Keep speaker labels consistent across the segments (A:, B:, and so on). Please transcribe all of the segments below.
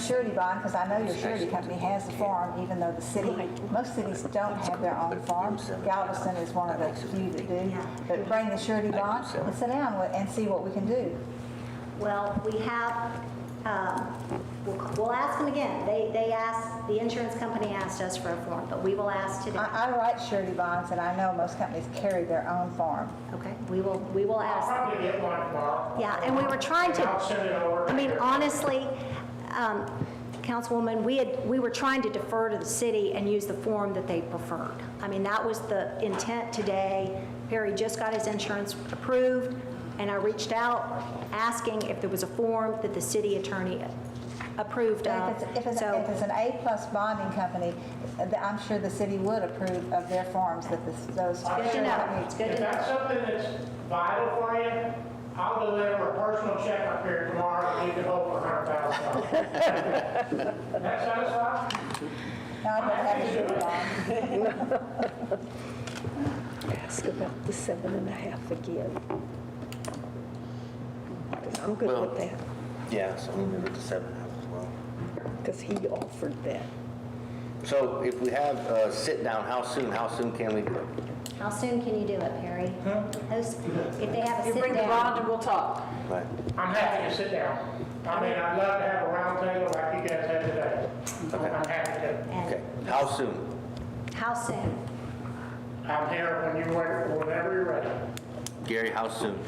A: surety bond, because I know your surety company has a farm, even though the city, most cities don't have their own farms. Galveston is one of the few that do. But bring the surety bond and sit down with- and see what we can do.
B: Well, we have, um, we'll we'll ask them again. They, they asked, the insurance company asked us for a form, but we will ask today.
A: I, I write surety bonds, and I know most companies carry their own farm.
B: Okay, we will, we will
C: I'll
B: ask.
C: probably get one tomorrow.
B: Yeah, and we were trying to.
C: I'll send it over.
B: I mean, honestly, um, Councilwoman, we had, we were trying to defer to the city and use the form that they preferred. I mean, that was the intent today. Perry just got his insurance approved, and I reached out asking if there was a form that the city attorney approved
A: If
B: of.
A: it's, if it's,
B: So-
A: if it's an A-plus bonding company, th- I'm sure the city would approve of their farms that this, those.
B: Good to
A: surety
B: know,
A: companies-
B: it's good
C: uh, If
B: to know.
C: that's something that's vital for you, I'll deliver a personal check up here tomorrow, and you can hold for a hundred thousand dollars. That satisfied?
A: No, I don't have a surety bond.
D: ask about the seven and a half again. I'm good with that,
E: Yeah, so we move it to seven and a half as well.
D: because he offered that.
E: So if we have a sit-down, how soon, how soon can we do it?
B: How soon can you do it, Perry? Those- If they have a
F: You bring
B: sit
F: the
B: down.
F: bond and we'll talk.
E: Right.
C: I'm happy to sit down. I mean, I'd love to have a round table like you guys had today. I'm happy to.
E: Okay,
B: And
E: how soon?
B: how soon?
C: I'm here when you're ready, whenever you're ready.
E: Gary, how soon?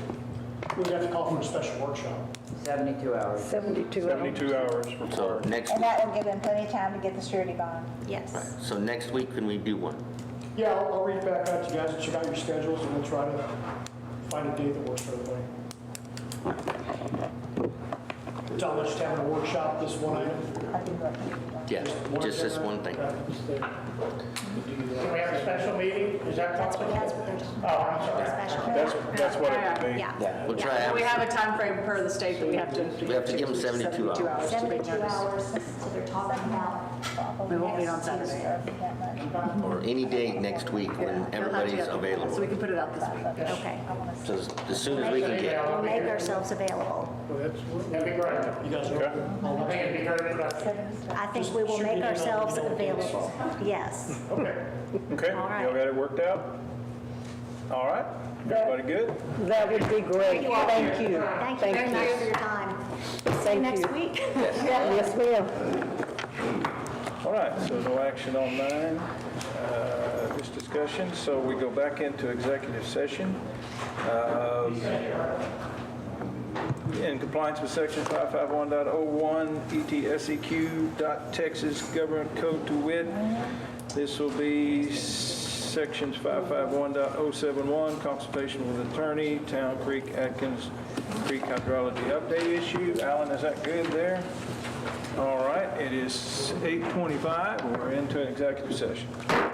C: We have to call for a special workshop.
G: 72 hours.
D: 72 hours.
H: 72 hours
E: So
H: required.
E: next
A: And
E: week,
A: that will give them plenty of time to get the surety bond.
B: Yes.
E: so next week, can we do one?
I: Yeah, I'll I'll reach back out to you guys, check out your schedules, and we'll try to find a date that works for everybody. Tell us to have a workshop, this one item.
A: I do recommend that.
E: Yeah, just this one thing.
C: Can we have a special meeting? Is that
B: That's
C: possible?
B: what, that's what they're talking
C: Oh, I'm sorry.
H: That's,
B: about.
H: that's what it would be.
B: Yeah.
E: We'll try,
F: We
E: and-
F: have a time frame per the state that we have to.
E: we have to give them 72 hours.
B: 72 hours, so they're talking about,
F: We won't meet on Saturday.
E: Or any day next week when everybody's
F: So we
E: available.
F: can put it out this week.
B: okay.
E: So as as soon as we can get it.
B: We'll make ourselves available.
C: That'd be great.
I: You guys are
C: I
H: Okay.
C: think it'd be very productive.
B: I think we will make ourselves available, yes.
C: Okay.
H: Okay,
B: All right.
H: y'all got it worked out? All right, everybody good?
D: That would be great. Thank you.
B: Thank you very much for your time. See you
D: Thank
B: next
D: you.
B: week.
D: Yes, ma'am.
H: All right, so no action on nine, uh, this discussion, so we go back into executive session. Um, In compliance with section 551.01 ETSEQ E dot Texas Government Code to wit, this will be sections 551.071, consultation with attorney, Town Creek Atkins Creek hydrology update issue. Alan, is that good there? All right, it is 8:25, we're into an executive session.